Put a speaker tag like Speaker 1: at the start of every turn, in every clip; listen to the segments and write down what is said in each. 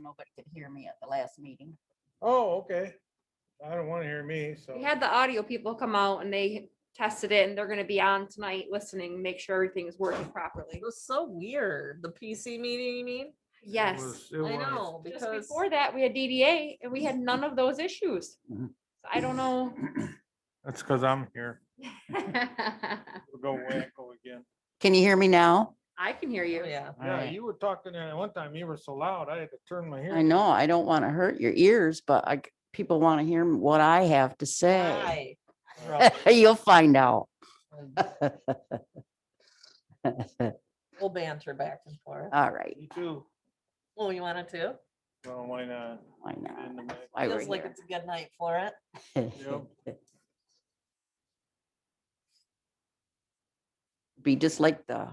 Speaker 1: nobody could hear me at the last meeting.
Speaker 2: Oh, okay. I don't want to hear me, so.
Speaker 3: We had the audio people come out and they tested it and they're gonna be on tonight listening, make sure everything is working properly.
Speaker 4: It was so weird. The PC meeting, you mean?
Speaker 3: Yes.
Speaker 2: was- it
Speaker 4: I
Speaker 2: was.
Speaker 4: know,
Speaker 3: Just
Speaker 4: because
Speaker 3: before that, we had DDA and we had none of those issues.
Speaker 5: Mhm.
Speaker 3: So I don't know.
Speaker 2: That's because I'm here. We'll go wacko again.
Speaker 1: Can you hear me now?
Speaker 3: I can hear you.
Speaker 4: Oh, yeah,
Speaker 2: Yeah,
Speaker 1: Alright.
Speaker 2: you were talking, and one time you were so loud, I had to turn my
Speaker 1: I
Speaker 2: hearing.
Speaker 1: know, I don't want to hurt your ears, but I, c- people want to hear what I have to say.
Speaker 4: why?
Speaker 1: You'll find out.
Speaker 4: We'll banter back and forth.
Speaker 1: All right,
Speaker 2: You too.
Speaker 4: Oh, you wanted to?
Speaker 2: Well, why not?
Speaker 1: why
Speaker 2: Get in
Speaker 1: not?
Speaker 2: the mix.
Speaker 1: Why we're
Speaker 4: Feels like
Speaker 1: here.
Speaker 4: it's a good night for it.
Speaker 2: Yep.
Speaker 1: Be just like the,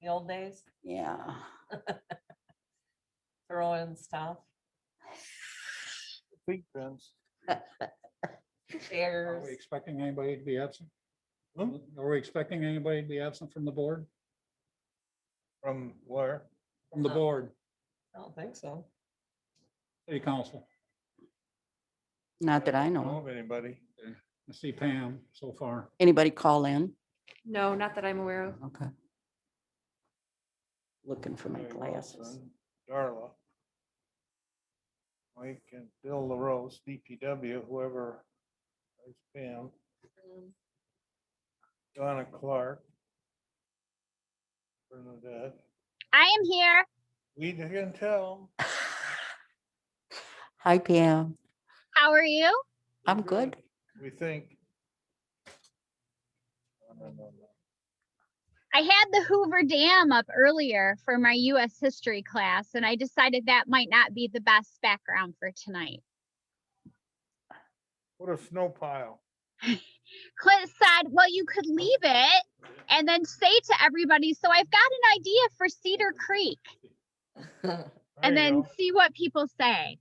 Speaker 4: The old days,
Speaker 1: yeah.
Speaker 4: throw in stuff,
Speaker 2: Think fence.
Speaker 5: Are
Speaker 4: chairs.
Speaker 5: we expecting anybody to be absent?
Speaker 2: Hmm?
Speaker 5: Are we expecting anybody to be absent from the board?
Speaker 2: From where?
Speaker 5: From the
Speaker 4: No.
Speaker 5: board,
Speaker 4: I don't think so.
Speaker 5: city council.
Speaker 1: Not that I
Speaker 2: don't
Speaker 4: Oh.
Speaker 1: know. of.
Speaker 2: of Anybody.
Speaker 5: I see Pam so far.
Speaker 1: Anybody call in?
Speaker 3: No, not that I'm aware of.
Speaker 1: Okay. Looking for my
Speaker 2: Mary
Speaker 1: glasses.
Speaker 2: Wilson, Darla. Mike and Bill LaRose, DPW, whoever. There's Pam, Donna Clark. Bernadette,
Speaker 6: I am here.
Speaker 2: we didn't tell.
Speaker 1: Hi Pam,
Speaker 6: How are you?
Speaker 2: We're
Speaker 1: I'm good.
Speaker 2: We think. No, no, no, no.
Speaker 6: I had the Hoover Dam up earlier for my US history class, and I decided that might not be the best background for tonight.
Speaker 2: What a snow pile.
Speaker 6: Clint said, Well, you could leave it and then say to everybody, So I've got an idea for Cedar Creek,
Speaker 2: There
Speaker 6: and
Speaker 2: you
Speaker 6: then
Speaker 2: go.
Speaker 6: see what people say.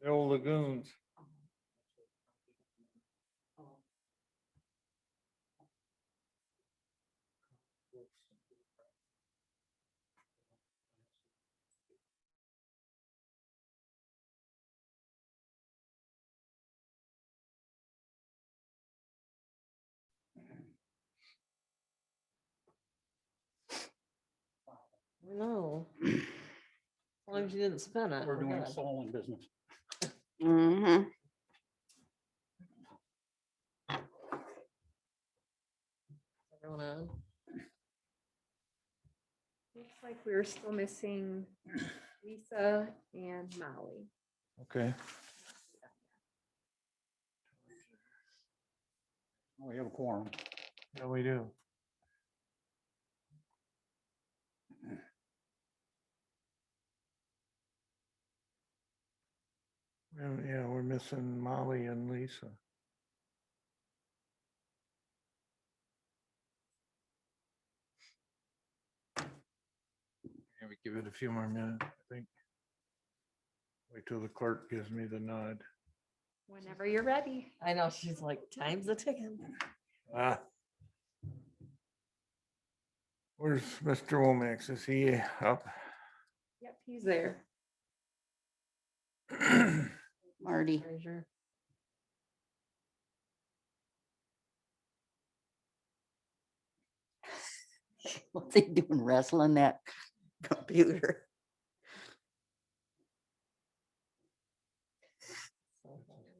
Speaker 2: The old lagoons. um,
Speaker 4: No. As long as you didn't spin it.
Speaker 5: We're doing
Speaker 4: good.
Speaker 5: soul business.
Speaker 1: Mhm.
Speaker 4: Everyone on?
Speaker 3: Looks like we're still missing Lisa and Molly.
Speaker 2: Okay.
Speaker 5: We have a quorum.
Speaker 2: Yeah, we do. Yeah, yeah, we're missing Molly and Lisa. Maybe give it a few more minutes, I think. Wait till the clerk gives me the nod.
Speaker 3: Whenever you're ready.
Speaker 4: I know, she's like, time's a ticking.
Speaker 2: Ah. Where's Mr. Womack? Is he up?
Speaker 3: Yep, he's there.
Speaker 1: Marty.
Speaker 4: Treasure.
Speaker 1: What they doing wrestling that computer?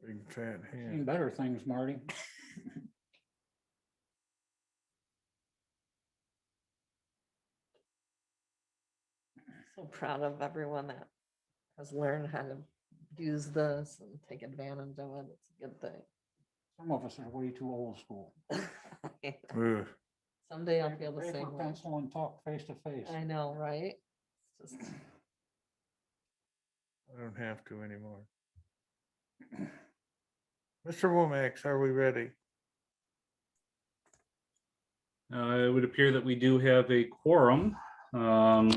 Speaker 2: Big fat
Speaker 5: Seen
Speaker 2: hand.
Speaker 5: better things, Marty.
Speaker 4: So proud of everyone that has learned how to use this and take advantage of it. It's a good
Speaker 5: Some of us are way too old school.
Speaker 4: thing.
Speaker 2: Ugh.
Speaker 4: Someday I'll be
Speaker 5: Paper
Speaker 4: able to sing.
Speaker 5: paper, Pencil and talk face to face.
Speaker 4: I know, right? It's just-
Speaker 2: I don't have to anymore. Mr. Womack, are we ready?
Speaker 7: Uh, It would appear that we do have a quorum. Um,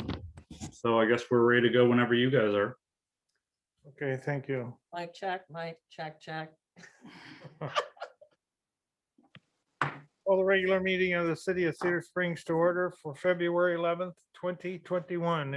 Speaker 7: So I guess we're ready to go whenever you guys are.
Speaker 2: Okay, thank you.
Speaker 4: Mic check, mic check, check.
Speaker 2: Call the regular meeting of the city of Cedar Springs to order for February eleventh, twenty twenty-one.